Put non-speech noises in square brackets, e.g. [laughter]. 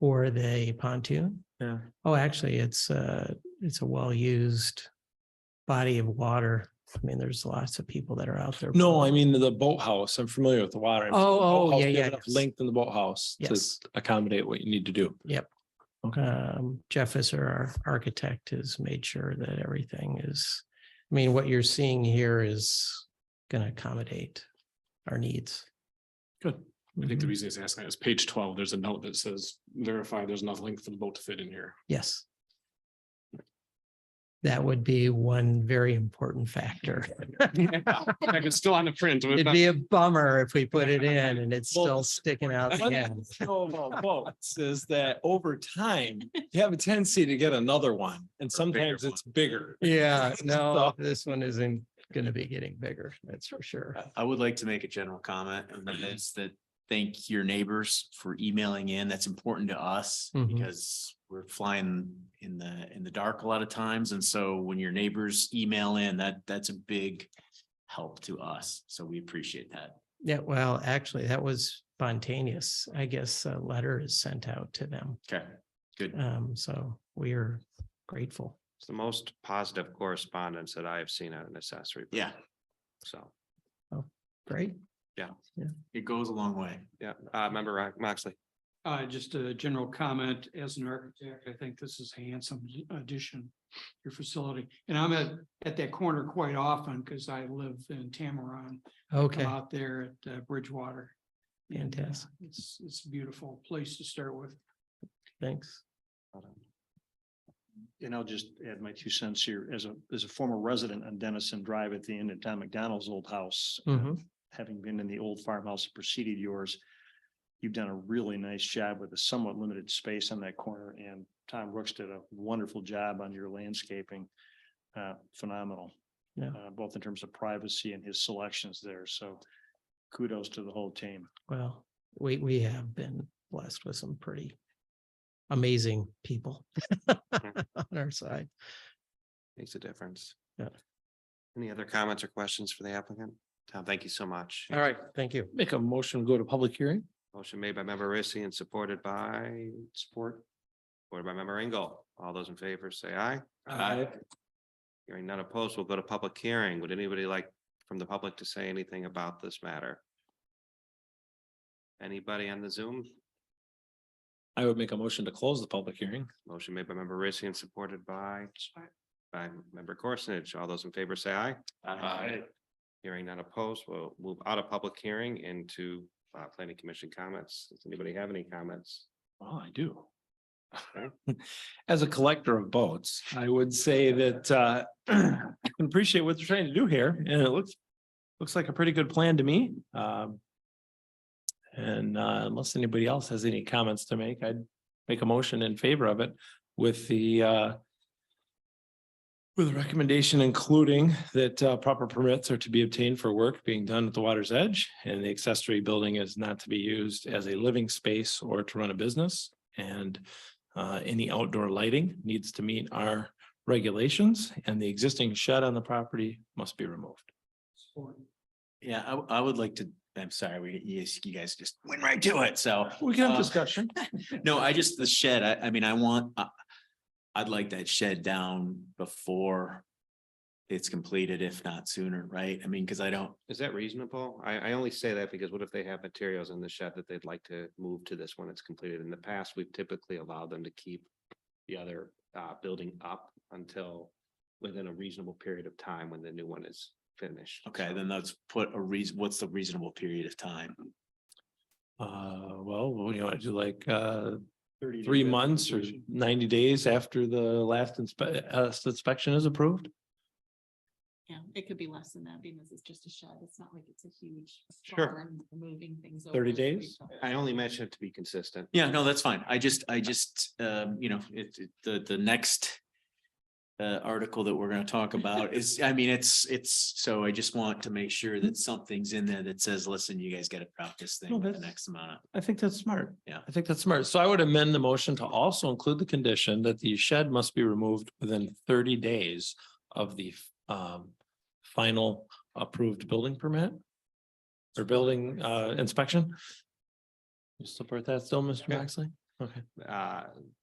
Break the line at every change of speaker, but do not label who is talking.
for the pontoon?
Yeah.
Oh, actually, it's a, it's a well-used body of water. I mean, there's lots of people that are out there.
No, I mean the boathouse. I'm familiar with the water. I'm-
Oh, oh,
boathouse,
yeah,
they have
yeah,
enough
yes.
Length in the boathouse to
Yes.
accommodate what you need to do.
um, Jeff is our architect has made sure that everything is, I mean, what you're seeing here is going to accommodate our needs.
Good. I think the
Mhm.
reason he's asking is page twelve, there's a note that says verify there's enough length for the boat to fit in here.
Yes. That would be one very important factor.
Like, It's still on the print. but it's
It'd
not-
be a bummer if we put it in and it's still sticking out the
One
end.
thing to know about boats is that over time, you have a tendency to get another one and sometimes
one.
it's bigger.
[laughs]
Yeah, no,
So-
this one isn't going to be getting bigger. That's for sure.
I- I would like to make a general comment, and that is that thank your neighbors for emailing in. That's important to us
Mhm.
because we're flying in the, in the dark a lot of times. And so when your neighbors email in, that, that's a big help to us. So we appreciate that.
Yeah, well, actually, that was spontaneous. I guess a letter is sent out to them.
Okay, good.
Um, so we are grateful.
It's the most positive correspondence that I have seen on an accessory. building,
Yeah,
So,
[laughs]
Great.
it goes a long way.
yeah, uh, member Rock- Moxley,
Uh, just a general comment, as an architect, I think this is a handsome addition, to your facility. And I'm at, at that corner quite often because I live in Tamaron, come
Okay.
Uh-huh.
out there at uh, Bridgewater. And, uh,
Fantastic.
It's, it's a beautiful place to start with.
Thanks.
and I'll just add my two cents here as a, as a former resident on Dennison Drive at the end of Tom McDonald's old house. uh,
Mhm.
Having been in the old farmhouse that preceded yours, you've done a really nice job with a somewhat limited space on that corner and Tom Brooks did a wonderful job on your landscaping. Uh, phenomenal.
Yeah.
Uh, both in terms of privacy and his selections there. So kudos to the whole team.
Well, we, we have been blessed with some pretty amazing people [laughs]
Mm-hmm.
on our side.
makes a difference.
Yeah.
Any other comments or questions for the applicant? Tom, thank you so much.
All right. Thank you.
Make a motion, to go to public hearing.
Motion made by member Rissy and supported by support. Supported by member Engel. All those in favor say aye. Hearing none opposed, we'll go to public hearing. Would anybody like from the public to say anything about this matter? Anybody on the Zoom?
I would make a motion to close the public hearing.
Motion made by member Rissy and supported by by member Gorsuch. All those in favor say aye.
Aye.
Hearing none opposed, we'll move out of public hearing into uh, planning commission comments. Does anybody have any comments?
Well, Oh, I do. [laughs] As a collector of boats, I would say that uh, [clears throat] I appreciate what they're trying to do here and it looks, looks like a pretty good plan to me. Um, And uh, unless anybody else has any comments to make, I'd make a motion in favor of it with the uh, with a recommendation including that uh, proper permits are to be obtained for work being done at the water's edge and the accessory building is not to be used as a living space or to run a business. And uh, any outdoor lighting needs to meet our regulations and the existing shed on the property must be removed.
Support.
Yeah, I, I would like to, I'm sorry, we, you, you guys just went right to it. So
We can have
Uh,
discussion.
No, I just, the shed, I, I mean, I want, I, I'd like that shed down before it's completed, if not sooner, right? I mean, because I don't,
Is that reasonable? I, I only say that because what if they have materials in the shed that they'd like to move to this when it's completed? In the past, we've typically allowed them to keep the other uh, building up until within a reasonable period of time when the new one is finished.
okay, then let's put a reason, what's the reasonable period of time?
Uh, well, what do you want to do, like, uh,
30 days
three
after
months or
completion.
ninety days after the last inspe- uh, inspection is approved?
Yeah, it could be less than that because it's just a shed. It's not like it's a huge
Sure.
barn moving things.
30
over.
days?
I only mention it to be consistent.
Yeah, no, that's fine. I just, I just, um, you know, it, it- the, the next uh, article that we're gonna
[laughs]
talk about is, I mean, it's, it's, so I just want to make sure that something's in there that says, listen, you guys gotta drop this
No,
thing with the
that's-
next amount of.
I think that's smart.
Yeah.
I think that's smart. So I would amend the motion to also include the condition that the shed must be removed within thirty days of the um final approved building permit or building uh inspection. You support that still, Mr. Maxley?
Okay.
Uh,